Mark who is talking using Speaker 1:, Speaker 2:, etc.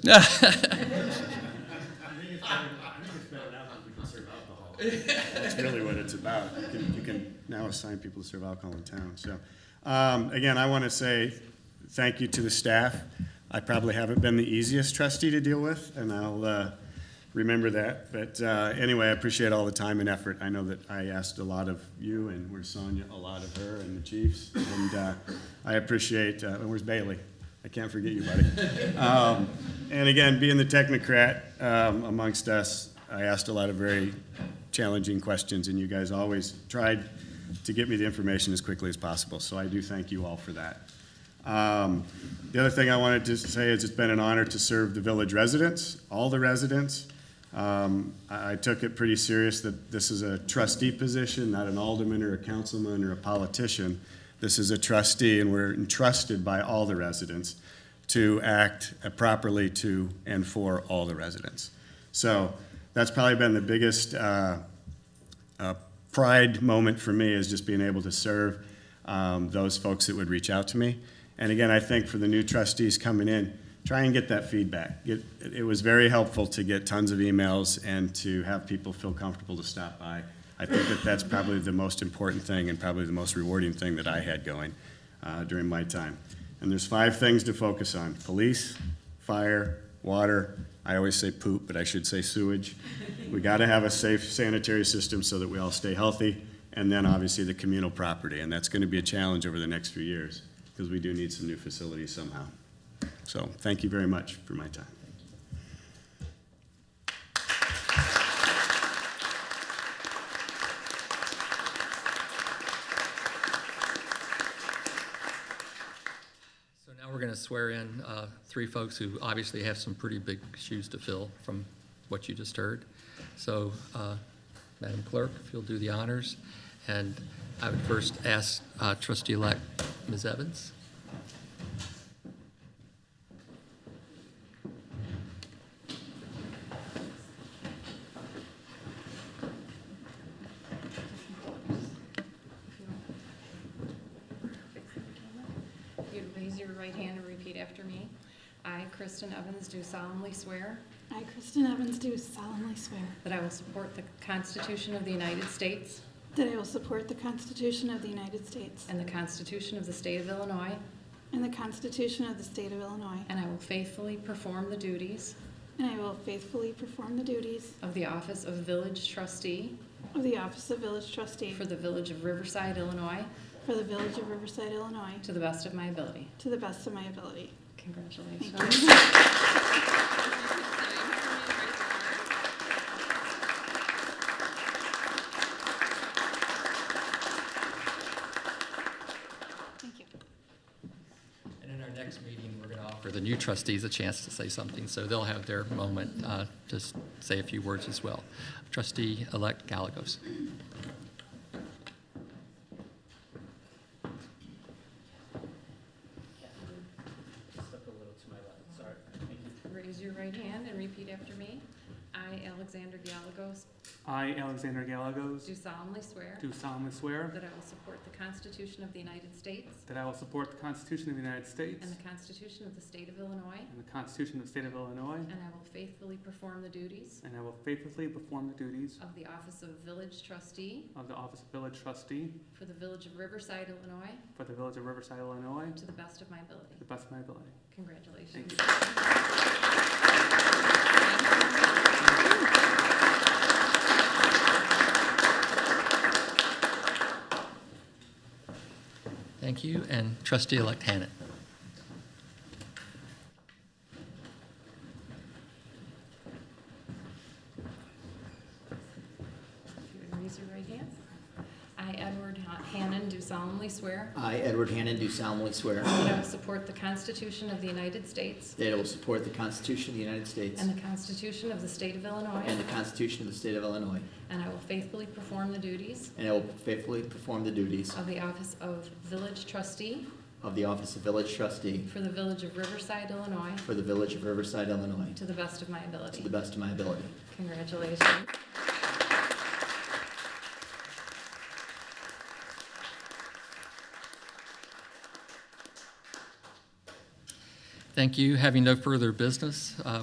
Speaker 1: That's really what it's about. You can, you can now assign people to serve alcohol in town, so. Um, again, I want to say thank you to the staff. I probably haven't been the easiest trustee to deal with, and I'll, uh, remember that. But, uh, anyway, I appreciate all the time and effort. I know that I asked a lot of you, and where's Sonia, a lot of her and the chiefs. And, uh, I appreciate, uh, and where's Bailey? I can't forget you, buddy. Um, and again, being the technocrat, um, amongst us, I asked a lot of very challenging questions, and you guys always tried to get me the information as quickly as possible. So I do thank you all for that. Um, The other thing I wanted to say is it's been an honor to serve the village residents, all the residents. Um, I I took it pretty serious that this is a trustee position, not an alderman or a councilman or a politician. This is a trustee, and we're entrusted by all the residents to act properly to and for all the residents. So that's probably been the biggest uh, uh, pride moment for me is just being able to serve um, those folks that would reach out to me. And again, I think for the new trustees coming in, try and get that feedback. It, it was very helpful to get tons of emails and to have people feel comfortable to stop by. I think that that's probably the most important thing and probably the most rewarding thing that I had going uh, during my time. And there's five things to focus on: police, fire, water. I always say poop, but I should say sewage. We got to have a safe sanitary system so that we all stay healthy. And then obviously the communal property, and that's going to be a challenge over the next few years because we do need some new facilities somehow. So thank you very much for my time.
Speaker 2: So now we're going to swear in uh, three folks who obviously have some pretty big shoes to fill from what you just heard. So, uh, Madam Clerk, if you'll do the honors, and I would first ask uh, trustee-elect Ms. Evans.
Speaker 3: If you'd raise your right hand and repeat after me. I, Kristen Evans, do solemnly swear
Speaker 4: I, Kristen Evans, do solemnly swear
Speaker 3: that I will support the Constitution of the United States
Speaker 4: that I will support the Constitution of the United States
Speaker 3: and the Constitution of the State of Illinois,
Speaker 4: and the Constitution of the State of Illinois,
Speaker 3: and I will faithfully perform the duties
Speaker 4: and I will faithfully perform the duties
Speaker 3: of the office of village trustee
Speaker 4: of the Office of Village Trustee
Speaker 3: for the village of Riverside, Illinois,
Speaker 4: for the Village of Riverside, Illinois,
Speaker 3: to the best of my ability.
Speaker 4: to the best of my ability.
Speaker 3: Congratulations.
Speaker 4: Thank you.
Speaker 2: And in our next meeting, we're going to offer the new trustees a chance to say something, so they'll have their moment uh, to s- say a few words as well. Trustee-elect Gallegos.
Speaker 5: Step a little to my left, sorry. Thank you.
Speaker 3: Raise your right hand and repeat after me. I, Alexander Gallegos,
Speaker 5: I, Alexander Gallegos,
Speaker 3: do solemnly swear
Speaker 5: do solemnly swear
Speaker 3: that I will support the Constitution of the United States
Speaker 5: that I will support the Constitution of the United States
Speaker 3: and the Constitution of the State of Illinois,
Speaker 5: and the Constitution of the State of Illinois,
Speaker 3: and I will faithfully perform the duties
Speaker 5: and I will faithfully perform the duties
Speaker 3: of the Office of Village Trustee
Speaker 5: of the Office of Village Trustee
Speaker 3: for the Village of Riverside, Illinois,
Speaker 5: for the Village of Riverside, Illinois,
Speaker 3: to the best of my ability.
Speaker 5: to the best of my ability.
Speaker 3: Congratulations.
Speaker 5: Thank you.
Speaker 2: Thank you, and trustee-elect Hannan.
Speaker 3: If you would Raise your right hand. I, Edward Ha- Hannon, do solemnly swear
Speaker 6: I, Edward Hannon, do solemnly swear
Speaker 3: that I will support the Constitution of the United States
Speaker 6: that I will support the Constitution of the United States
Speaker 3: and the Constitution of the State of Illinois,
Speaker 6: and the Constitution of the State of Illinois,
Speaker 3: and I will faithfully perform the duties
Speaker 6: and I will faithfully perform the duties
Speaker 3: of the Office of Village Trustee
Speaker 6: of the Office of Village Trustee
Speaker 3: for the Village of Riverside, Illinois,
Speaker 6: for the Village of Riverside, Illinois,
Speaker 3: to the best of my ability.
Speaker 6: to the best of my ability.
Speaker 3: Congratulations.
Speaker 2: Thank you. Having no further business, uh,